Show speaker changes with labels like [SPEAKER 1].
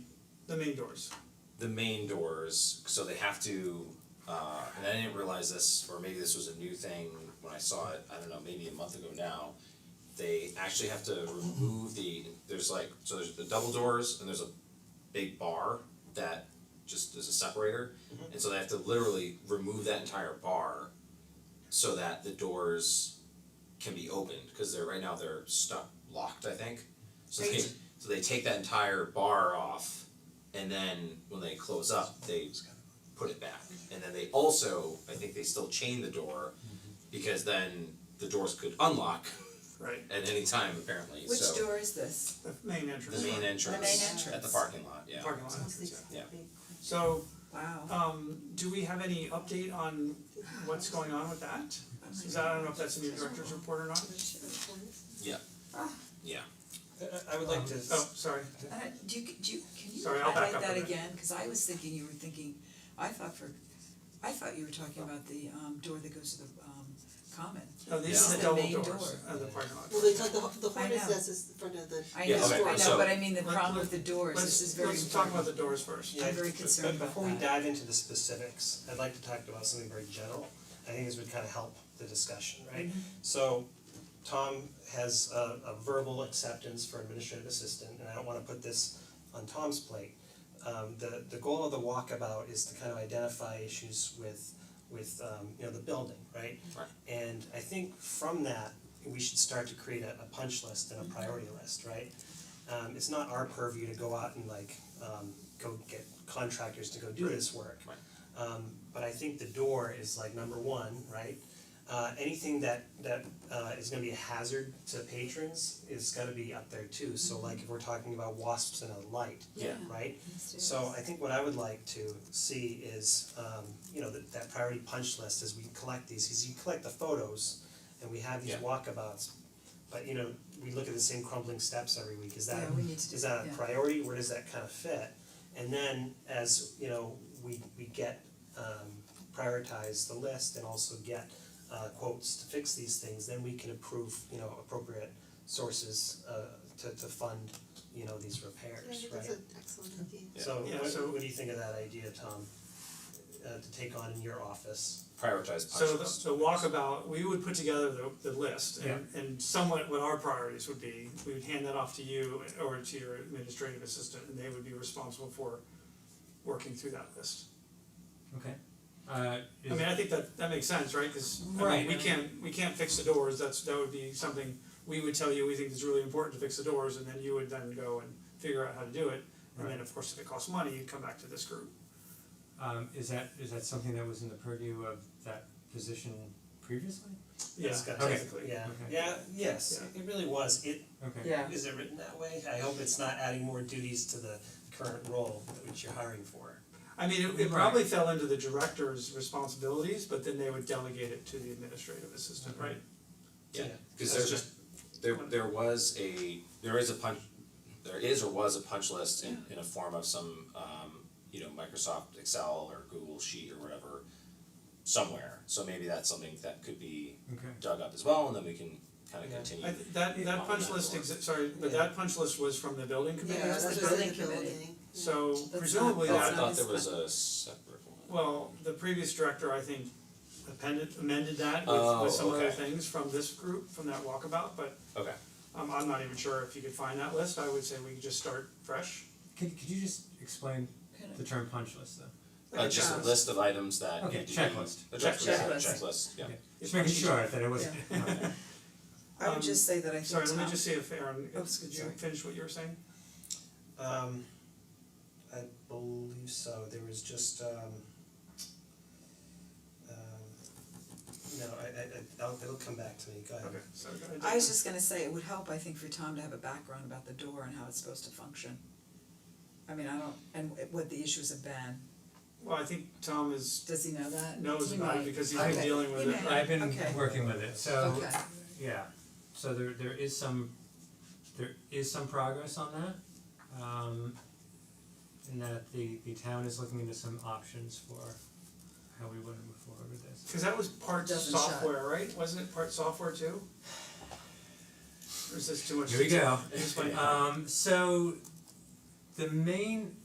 [SPEAKER 1] the main doors.
[SPEAKER 2] the main doors, so they have to, uh, and I didn't realize this, or maybe this was a new thing when I saw it, I don't know, maybe a month ago now. They actually have to remove the, there's like, so there's the double doors and there's a big bar that just is a separator. And so they have to literally remove that entire bar so that the doors can be opened, cause they're, right now they're stuck, locked, I think. So they,
[SPEAKER 3] Right.
[SPEAKER 2] so they take that entire bar off and then when they close up, they put it back. And then they also, I think they still chain the door because then the doors could unlock
[SPEAKER 1] Right.
[SPEAKER 2] at any time apparently,
[SPEAKER 3] Which
[SPEAKER 2] so.
[SPEAKER 3] door is this?
[SPEAKER 1] The main entrance.
[SPEAKER 2] The main entrance at the
[SPEAKER 3] entrance.
[SPEAKER 2] parking lot, yeah.
[SPEAKER 1] Parking lot entrance, yeah.
[SPEAKER 2] Yeah.
[SPEAKER 1] So,
[SPEAKER 3] Wow.
[SPEAKER 1] um, do we have any update on what's going on with that? Is that, I don't know if that's in your director's report or not?
[SPEAKER 3] Ah.
[SPEAKER 4] I would like to,
[SPEAKER 1] Oh, sorry.
[SPEAKER 3] Uh, do you, do you, can you
[SPEAKER 1] Sorry, I'll back
[SPEAKER 3] highlight
[SPEAKER 1] up a
[SPEAKER 3] that
[SPEAKER 1] bit.
[SPEAKER 3] again, cause I was thinking you were thinking, I thought for, I thought you were talking about the um door that goes to the um common.
[SPEAKER 1] No,
[SPEAKER 3] This
[SPEAKER 1] these are
[SPEAKER 3] is
[SPEAKER 1] the
[SPEAKER 3] the
[SPEAKER 1] double
[SPEAKER 3] main
[SPEAKER 1] doors
[SPEAKER 3] door.
[SPEAKER 1] of the parking lot.
[SPEAKER 5] Well, it's like the the
[SPEAKER 3] I
[SPEAKER 5] hornet's
[SPEAKER 3] know.
[SPEAKER 5] nest is in front of the.
[SPEAKER 3] I
[SPEAKER 2] Yeah,
[SPEAKER 3] know,
[SPEAKER 2] okay,
[SPEAKER 3] I know,
[SPEAKER 2] so-
[SPEAKER 3] but I mean the
[SPEAKER 1] Let-
[SPEAKER 3] problem with the doors, this is very
[SPEAKER 1] Let's let's talk
[SPEAKER 3] important.
[SPEAKER 1] about the doors first.
[SPEAKER 4] yeah,
[SPEAKER 3] I'm very
[SPEAKER 4] but-
[SPEAKER 3] concerned
[SPEAKER 4] but
[SPEAKER 3] about
[SPEAKER 4] before we
[SPEAKER 3] that.
[SPEAKER 4] dive into the specifics, I'd like to talk about something very general. I think this would kind of help the discussion, right?
[SPEAKER 3] Mm-hmm.
[SPEAKER 4] So Tom has a a verbal acceptance for administrative assistant, and I don't wanna put this on Tom's plate. Um the the goal of the walkabout is to kind of identify issues with with um you know the building, right?
[SPEAKER 2] Right.
[SPEAKER 4] And I think from that, we should start to create a a punch list
[SPEAKER 2] Mm-hmm.
[SPEAKER 4] and a priority list, right? Um it's not our purview to go out and like um go get contractors to go do this work.
[SPEAKER 2] Right.
[SPEAKER 4] Um but I think the door is like number one, right? Uh anything that that uh is gonna be a hazard to patrons is gotta be up there too, so like if we're talking about wasps and a light,
[SPEAKER 2] Mm-hmm. Yeah.
[SPEAKER 4] right?
[SPEAKER 1] um,
[SPEAKER 4] So I think what I would like to see is um you know that that priority punch list as we collect these, cause you collect the photos and we have these
[SPEAKER 2] Yeah.
[SPEAKER 4] walkabouts. But you know, we look at the same crumbling steps every week, is that
[SPEAKER 3] Yeah, we need to do
[SPEAKER 4] is that
[SPEAKER 3] that,
[SPEAKER 4] a
[SPEAKER 3] yeah.
[SPEAKER 4] priority, where does that kind of fit? And then as you know, we we get um prioritize the list and also get uh quotes to fix these things, then we can approve, you know, appropriate sources uh to to fund, you know, these repairs,
[SPEAKER 5] Yeah, I
[SPEAKER 4] right?
[SPEAKER 5] think that's an excellent idea.
[SPEAKER 4] So
[SPEAKER 1] Yeah,
[SPEAKER 4] what
[SPEAKER 1] so-
[SPEAKER 4] what do you think of that idea, Tom? Uh to take on in your office?
[SPEAKER 2] Prioritize
[SPEAKER 1] So
[SPEAKER 2] punch
[SPEAKER 1] the
[SPEAKER 2] list.
[SPEAKER 1] the walkabout, we would put together the the list and and somewhat what our priorities would be, we would hand that off to you or to your administrative assistant and they would be responsible for working through that list.
[SPEAKER 6] Okay. Uh,
[SPEAKER 1] I
[SPEAKER 6] is,
[SPEAKER 1] mean, I think that that makes sense, right, cause I mean,
[SPEAKER 6] Right,
[SPEAKER 1] we
[SPEAKER 6] I mean-
[SPEAKER 1] can't, we can't fix the doors, that's that would be something we would tell you we think is really important to fix the doors and then you would then go and figure out how to do it. And then, of course, if it costs money, you'd come back to this group.
[SPEAKER 6] um, is that is that something that was in the purview of that position previously?
[SPEAKER 1] Yeah,
[SPEAKER 4] It's got-
[SPEAKER 6] Okay.
[SPEAKER 1] technically.
[SPEAKER 4] Yeah,
[SPEAKER 6] Okay.
[SPEAKER 4] yeah, yes, it really was, it
[SPEAKER 6] Okay.
[SPEAKER 3] Yeah.
[SPEAKER 4] Is it written that way? I hope it's not adding more duties to the current role which you're hiring for.
[SPEAKER 1] I mean, it it probably fell into the director's responsibilities, but then they would delegate it to the administrative assistant, right?
[SPEAKER 2] Yeah,
[SPEAKER 4] Yeah.
[SPEAKER 2] cause
[SPEAKER 1] That's
[SPEAKER 2] there's
[SPEAKER 1] just-
[SPEAKER 2] there there was a, there is a punch, there is or was a punch list in in a form of some um, you know, Microsoft Excel or Google Sheet or whatever somewhere, so maybe that's something that could be
[SPEAKER 6] Okay.
[SPEAKER 2] dug up as well, and then we can kind of
[SPEAKER 4] Yeah.
[SPEAKER 2] continue.
[SPEAKER 1] I th- that that punch list exi- sorry, but that punch list was from the building committee,
[SPEAKER 5] Yeah,
[SPEAKER 3] that's
[SPEAKER 5] that's
[SPEAKER 3] the
[SPEAKER 5] just in
[SPEAKER 3] building
[SPEAKER 5] the
[SPEAKER 3] committee.
[SPEAKER 5] building.
[SPEAKER 1] so
[SPEAKER 3] not-
[SPEAKER 1] presumably
[SPEAKER 2] Oh,
[SPEAKER 3] that's
[SPEAKER 1] that,
[SPEAKER 2] I
[SPEAKER 3] not
[SPEAKER 2] thought
[SPEAKER 3] this
[SPEAKER 2] there was
[SPEAKER 3] one.
[SPEAKER 2] a separate one.
[SPEAKER 1] well, the previous director, I think, appended amended that with
[SPEAKER 2] Oh,
[SPEAKER 1] with some other
[SPEAKER 2] okay.
[SPEAKER 1] things from this group, from that walkabout, but
[SPEAKER 2] Okay,
[SPEAKER 1] um I'm not even sure if you could find that list, I would say we could just start fresh.
[SPEAKER 6] Could could you just explain
[SPEAKER 3] Kind of-
[SPEAKER 6] the term punch list though?
[SPEAKER 2] uh, just a
[SPEAKER 3] checklist.
[SPEAKER 2] list of items that
[SPEAKER 6] Okay,
[SPEAKER 2] need to be.
[SPEAKER 6] checklist.
[SPEAKER 2] A checklist, yeah,
[SPEAKER 3] Checklist.
[SPEAKER 2] checklist, yeah.
[SPEAKER 6] Just making sure that it wasn't. okay.
[SPEAKER 3] I
[SPEAKER 1] um,
[SPEAKER 3] would just say that I
[SPEAKER 1] Sorry,
[SPEAKER 3] think
[SPEAKER 1] let
[SPEAKER 3] Tom,
[SPEAKER 1] me just see if Aaron,
[SPEAKER 3] Oh,
[SPEAKER 1] did you
[SPEAKER 3] sorry.
[SPEAKER 1] finish what you were saying?
[SPEAKER 4] Um I believe so, there was just um um no, I I I I'll it'll come back to me, go ahead.
[SPEAKER 1] Okay, so go ahead.
[SPEAKER 3] I was just gonna say, it would help, I think, for Tom to have a background about the door and how it's supposed to function. I mean, I don't, and what the issues have been,
[SPEAKER 1] Well, I think Tom is
[SPEAKER 3] does he know that?
[SPEAKER 1] knows
[SPEAKER 3] He
[SPEAKER 1] about it
[SPEAKER 3] might.
[SPEAKER 1] because he's been
[SPEAKER 3] Okay.
[SPEAKER 1] dealing with
[SPEAKER 3] He
[SPEAKER 1] it.
[SPEAKER 3] may.
[SPEAKER 6] I've been
[SPEAKER 3] Okay.
[SPEAKER 6] working with it, so
[SPEAKER 3] Okay,
[SPEAKER 6] yeah. So there there is some there is some progress on that. Um, in that the the town is looking into some options for how we want to move forward with this.
[SPEAKER 1] Cause that was part
[SPEAKER 3] Doesn't shut.
[SPEAKER 1] software, right? Wasn't it part software too? Or is this too much?
[SPEAKER 6] Here we go.
[SPEAKER 1] Explain.
[SPEAKER 6] Um so the main